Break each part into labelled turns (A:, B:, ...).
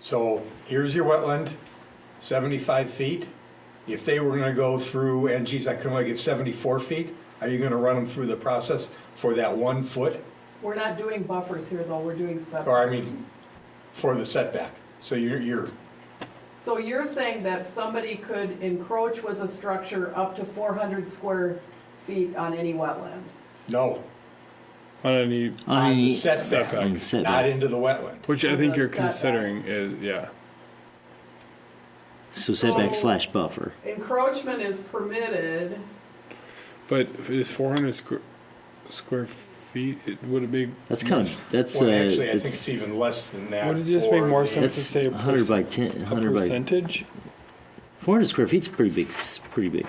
A: So here's your wetland, seventy-five feet. If they were gonna go through, and geez, I can only get seventy-four feet, are you gonna run them through the process for that one foot?
B: We're not doing buffers here, though, we're doing
A: Or I
B: setbacks.
A: mean, for the setback? So you're, you're,
B: So you're saying that somebody could encroach with a structure up to four hundred square feet on any wetland?
A: no,
C: on any,
A: on the
C: Setback.
A: setback, not into the wetland.
C: which I think
B: the
C: you're
B: setback.
C: considering is, yeah.
D: So
A: Oh.
D: setback
B: So-
D: slash buffer.
B: Encroachment is permitted,
C: But is four hundred square, square feet, it would it be?
D: That's kind of that's
A: Well,
D: uh,
A: actually, I think
D: it's,
A: it's even less than that.
C: Would it just make
A: for
C: more
A: the-
C: sense?
D: that's
C: to say a
D: 100 by 10,
C: A
D: 100 by
C: percentage?
D: 400 square feet's pretty big. s- Pretty big.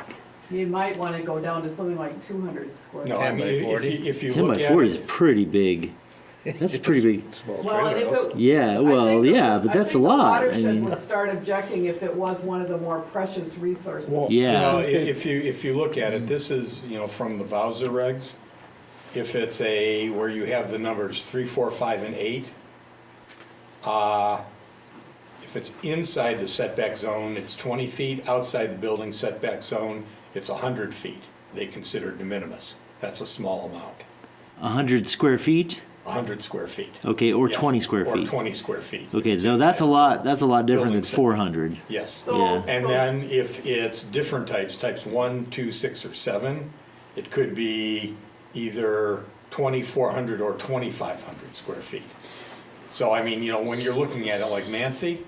B: you might want to go down to something like two hundred square.
A: No,
B: feet.
A: I mean, if you, if you
D: 10
A: look
D: by
A: at
D: 40 is
A: it,
D: pretty big. That's pretty big.
B: Well, and if it-
D: Yeah.
B: I
D: Well,
B: think the-
D: yeah, but
B: I
D: that's
B: think
D: a
B: the
D: lot. I
B: watershed
D: mean,
B: would start objecting if it was one of the more precious resources.
D: yeah.
A: Well, i- if you, if you look at it, this is, you know, from the Bowser regs. If it's a, where you have the numbers three, four, five, and eight, uh, if it's inside the setback zone, it's twenty feet. Outside the building setback zone, it's hundred feet. They consider de minimis. That's a small amount,
D: 100 square feet.
A: hundred square feet.
D: Okay, or
A: Yeah.
D: 20 square
A: Or
D: feet.
A: twenty square feet.
D: Okay, so that's a lot. That's a lot different
A: Building
D: than
A: set.
D: 400.
A: Yes.
B: So-
D: Yeah.
A: And
B: so-
A: then if it's different types, types one, two, six, or seven, it could be either twenty-four hundred or twenty-five hundred square feet. So I mean, you know, when you're looking at it like Manthe,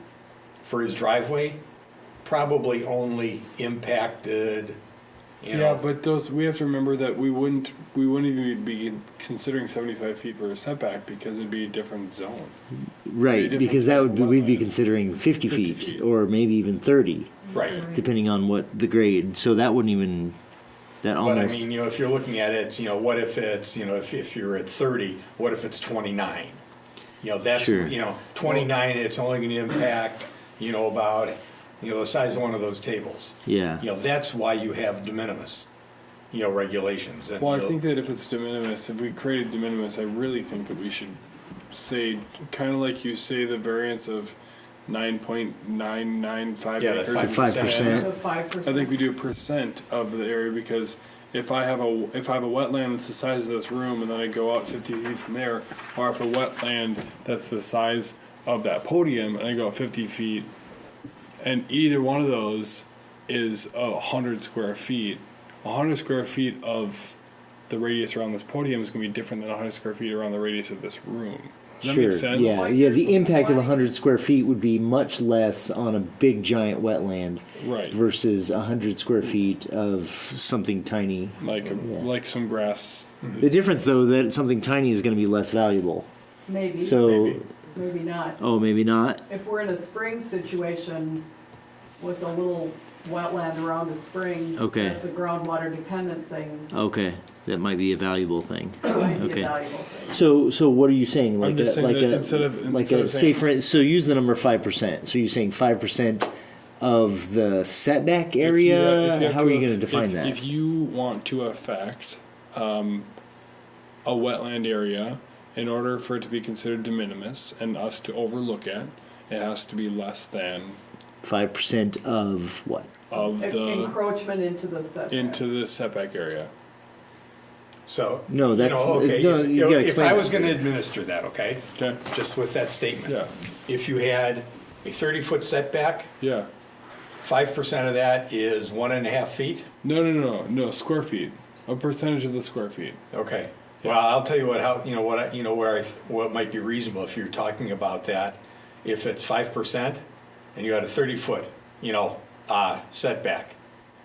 A: for his driveway, probably only impacted, you
C: Yeah,
A: know,
C: but those, we have to remember that we wouldn't, we wouldn't even be considering seventy-five feet for a setback because it'd be a different zone.
D: Right,
C: different
D: because that would be, we'd be
C: wetland.
D: considering
C: 50
D: 50, feet,
C: feet.
D: or maybe even 30,
A: right.
D: depending on what the grade. So that wouldn't even. That
A: But I
D: almost.
A: mean, you know, if you're looking at it, you know, what if it's, you know, if, if you're at thirty, what if it's twenty-nine? You know, that's,
D: Sure.
A: you know, twenty-nine, it's only gonna impact, you know, about, you know, the size of one of those tables.
D: yeah.
A: You know, that's why you have de minimis, you know, regulations and.
C: Well, I
A: you know,
C: think that if it's de minimis, if we created de minimis, I really think that we should say, kind of like you say, the variance of nine point nine nine five
A: Yeah, that
C: acres. is
D: Five
A: 5%.
D: percent.
B: To five percent.
C: I think we do percent of the area because if I have a if I have a wetland that's the size of this room and then I go out 50 feet from there, or if a wetland that's the size of that podium and I go out 50 feet, and either one of those is a hundred square feet, hundred square feet of the radius around this podium is going to be different than hundred square feet around the radius of this room. Does that
D: sure.
C: make sense?
D: Yeah, yeah. The impact of 100 square feet would be much less on a big giant wetland
C: Right.
D: versus 100 square feet of something tiny.
C: Like like some grass.
D: The difference, though, that something tiny is going to be less valuable.
B: Maybe,
D: So,
A: Maybe.
B: maybe not.
D: oh, maybe not.
B: If we're in a spring situation with a little wetland around a spring,
D: Okay.
B: that's a groundwater dependent thing,
D: Okay, that might be a valuable thing.
B: might be
D: Okay.
B: a valuable thing.
D: So, so what are you saying?
C: I'm
D: Like a,
C: just saying
D: like
C: that
D: a,
C: instead of-
D: like
C: instead
D: a
C: of saying-
D: say for so use the number five percent. So you're saying five percent of the setback
C: If you-
D: area.
C: if have
D: How are you
C: aff-
D: going to define
C: if-
D: that?
C: If you want to affect um, a wetland area, in order for it to be considered de minimis and us to overlook it, it has to be less than
D: Five percent of what?
C: of the
B: Encroachment into the setback.
C: into the setback area.
A: So.
D: No,
A: you
D: that's-
A: know, okay,
D: no,
A: if-
D: you gotta
A: If
D: explain
A: I
D: that.
A: was gonna administer that, okay,
C: Okay.
A: just with that statement.
C: Yeah.
A: If you had a thirty-foot setback,
C: Yeah.
A: five percent of that is one and a half feet.
C: No, no, no, no. Square feet. A percentage of the square feet.
A: Okay, well, I'll tell you what, how, you know, what, I- you know, where I, th- what might be reasonable if you're talking about that. If it's five percent and you had a thirty foot, you know, uh, setback,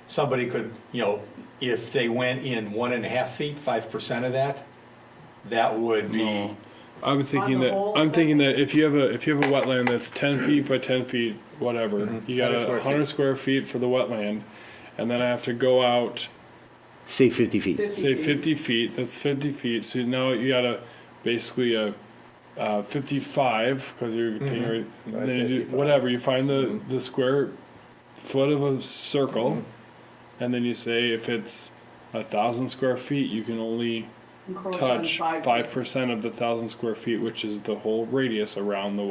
A: somebody could, you know, if they went in one and a half feet, five percent of that, that would be,
C: I'm thinking
B: the
C: that
B: whole
C: I'm thinking that if you have a if you have a wetland that's ten feet by ten feet, whatever,
D: Mm-hmm.
C: you got
A: 100 square
C: a hundred square feet for the wetland, and then I have to go out
D: Say fifty feet.
C: say
B: 50 feet.
C: 50 feet that's 50 feet so now you got a basically a uh, 55 because you're taking right- then you do, whatever you find the the square foot of a circle and then you say if it's a thousand square feet you can only
B: Encroach on
C: touch
B: five percent.
C: five percent of the thousand square feet which is the whole radius around the